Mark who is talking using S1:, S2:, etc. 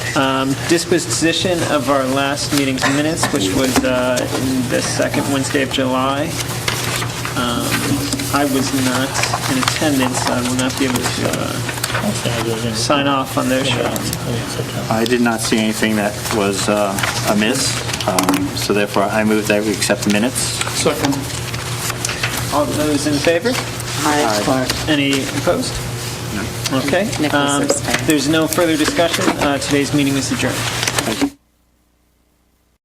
S1: Um, Disposition of our last meeting's minutes, which was uh, in the second Wednesday of July. Um, I was not in attendance, so I will not be able to uh, sign off on those.
S2: I did not see anything that was uh, amiss, um, so therefore I move that we accept the minutes.
S3: Second.
S1: All those in favor? Any opposed? Okay.
S4: Nicholas
S1: um,
S4: abstained.
S1: There's no further discussion. Uh, Today's meeting is adjourned.
S2: Thank you.